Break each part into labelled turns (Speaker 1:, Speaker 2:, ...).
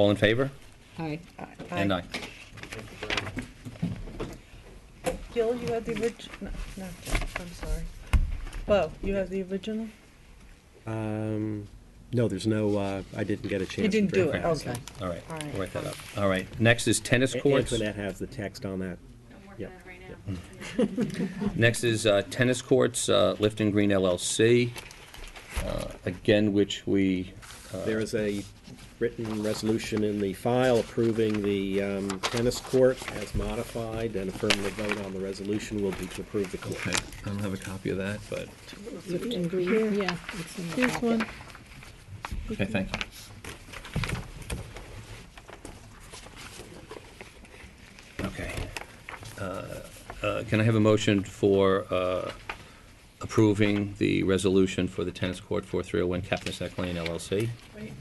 Speaker 1: All in favor?
Speaker 2: Aye.
Speaker 1: And I.
Speaker 3: Gil, you have the original, no, I'm sorry. Bo, you have the original?
Speaker 4: Um, no, there's no, uh, I didn't get a chance.
Speaker 3: You
Speaker 4: to
Speaker 3: didn't do
Speaker 4: bring
Speaker 3: it, okay.
Speaker 1: All right,
Speaker 3: All right,
Speaker 1: we'll write that
Speaker 3: fine.
Speaker 1: up. All right, next is tennis
Speaker 4: A-
Speaker 1: courts.
Speaker 4: Antoinette has the text on that.
Speaker 5: I'm
Speaker 4: Yeah.
Speaker 5: working on it right now.
Speaker 1: Next is uh, tennis courts, uh, Lifton Green LLC, uh, again, which we,
Speaker 4: There is a written resolution in the file approving the um, tennis court as modified, and affirmative vote on the resolution will be to approve the
Speaker 6: Okay,
Speaker 4: court.
Speaker 6: I don't have a copy of that, but,
Speaker 2: Lipton Green, yeah. it's in the
Speaker 3: Here's
Speaker 2: packet.
Speaker 3: one.
Speaker 6: okay, thank you.
Speaker 1: okay. Uh, uh, Can I have a motion for uh, approving the resolution for oh the tennis court 4301 Capnisac Lane LLC?
Speaker 7: Wait,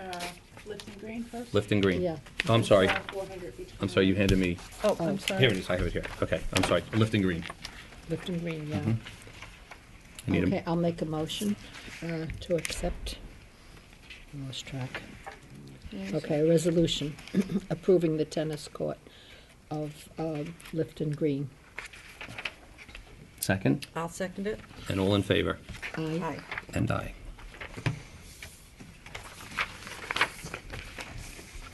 Speaker 7: uh, Lipton Green first?
Speaker 1: Lifton Green.
Speaker 2: Yeah.
Speaker 1: Oh, I'm sorry.
Speaker 7: Four hundred each.
Speaker 1: I'm sorry, you handed me,
Speaker 3: Oh,
Speaker 2: Oh.
Speaker 3: I'm sorry.
Speaker 1: here it is, I have it here. Okay, I'm sorry, Lifton Green.
Speaker 2: Lipton Green,
Speaker 4: Mm-hmm.
Speaker 2: yeah.
Speaker 1: I need a-
Speaker 2: Okay, I'll make a motion uh, to accept, I lost track. Okay, a resolution approving the tennis court of uh, Lipton Green.
Speaker 1: Second,
Speaker 3: I'll second it.
Speaker 1: and all in favor?
Speaker 2: Aye.
Speaker 3: Aye.
Speaker 1: And I.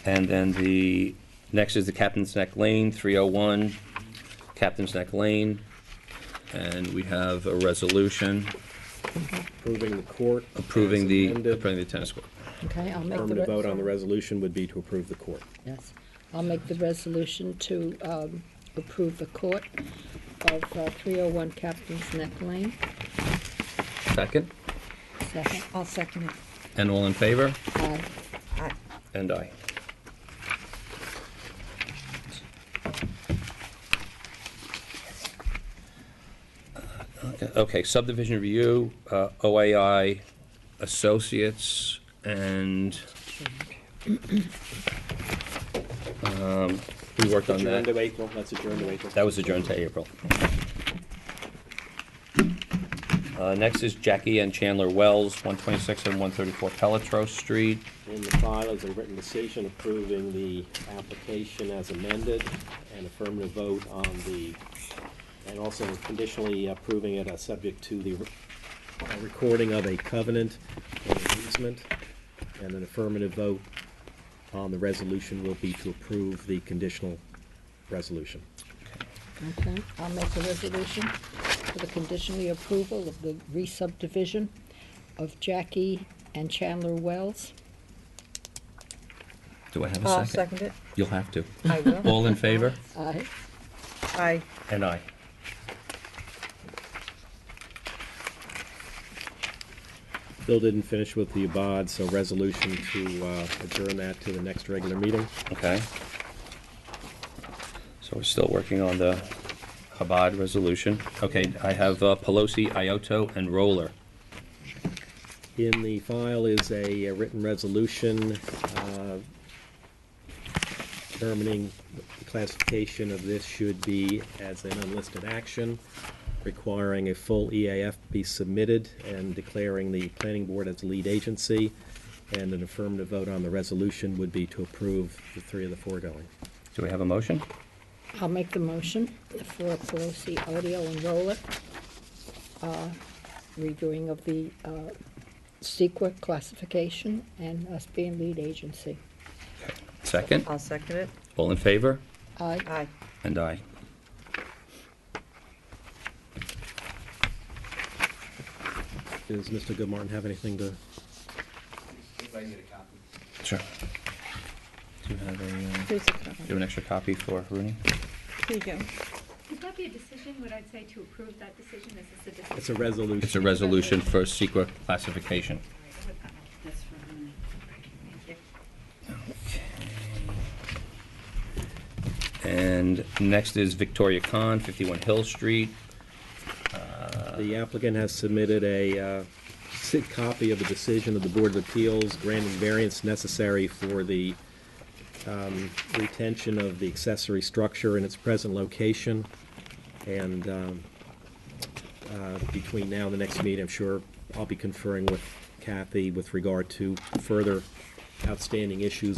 Speaker 1: And then the, next is the Captain's Neck Lane, 301, Captain's Neck Lane. And we have a resolution
Speaker 4: Approving the court.
Speaker 1: approving
Speaker 4: as
Speaker 1: the,
Speaker 4: amended,
Speaker 1: approving the tennis court.
Speaker 2: Okay, I'll make the.
Speaker 4: Affirmative
Speaker 2: re-
Speaker 4: vote on the resolution would be to approve the court.
Speaker 2: Yes, I'll make the resolution to um, approve the court of uh, 301 Captain's Neck Lane.
Speaker 1: Second,
Speaker 2: Second.
Speaker 3: I'll second it.
Speaker 1: and all in favor?
Speaker 2: Aye.
Speaker 3: Aye.
Speaker 1: And I. Uh, Okay, subdivision review, uh, OAI Associates, and um, we worked on
Speaker 4: Adjourn to
Speaker 1: that.
Speaker 4: April, that's adjourned to April.
Speaker 1: That was adjourned to April. Uh, Next is Jackie and Chandler Wells, 126 and 134 Pelletreau Street.
Speaker 4: In the file is a written decision approving the application as amended, and affirmative vote on the, and also conditionally approving it as subject to the uh, recording of a covenant or an easement, and an affirmative vote on the resolution will be to approve the conditional resolution.
Speaker 2: Okay, I'll make the resolution for the conditionally approval of the re-subdivision of Jackie and Chandler Wells.
Speaker 1: Do I have
Speaker 3: I'll second it.
Speaker 1: You'll have to.
Speaker 3: I will.
Speaker 1: All in favor?
Speaker 2: Aye.
Speaker 3: Aye.
Speaker 1: And I.
Speaker 4: Bill didn't finish with the abad, so resolution to uh, adjourn that to the next regular meeting.
Speaker 1: Okay. So we're still working on the Chabad resolution. Okay, I have uh, Pelosi, Ioto, and Roller.
Speaker 4: In the file is a a written resolution uh, determining the classification of this should be as an unlisted action, requiring a full EAF be submitted and declaring the planning board as lead agency, and an affirmative vote on the resolution would be to approve the three of the foregoing.
Speaker 1: Do we have a motion?
Speaker 2: I'll make the motion for Pelosi Audio and Roller, uh, reviewing of the uh, secret classification and us being lead agency.
Speaker 1: Second?
Speaker 3: I'll second it.
Speaker 1: All in favor?
Speaker 2: Aye.
Speaker 3: Aye.
Speaker 1: And I.
Speaker 4: Does Mr. Goodmartin have anything to?
Speaker 1: Sure. Do you have a, uh,
Speaker 3: Here's the copy.
Speaker 1: do an extra copy for Rooney?
Speaker 3: Here you go.
Speaker 5: Would that be a decision, would I say to approve that decision, is this a decision?
Speaker 4: It's a resolution.
Speaker 1: It's a resolution for secret classification.
Speaker 7: That's for Rooney. Thank you.
Speaker 1: And next is Victoria Khan, 51 Hill Street.
Speaker 4: The applicant has submitted a uh, si- copy of the decision of the Board of Appeals granting variance necessary for the um, retention of the accessory structure in its present location. And um, uh, between now and the next meeting, I'm sure I'll be conferring with Kathy with regard to further outstanding issues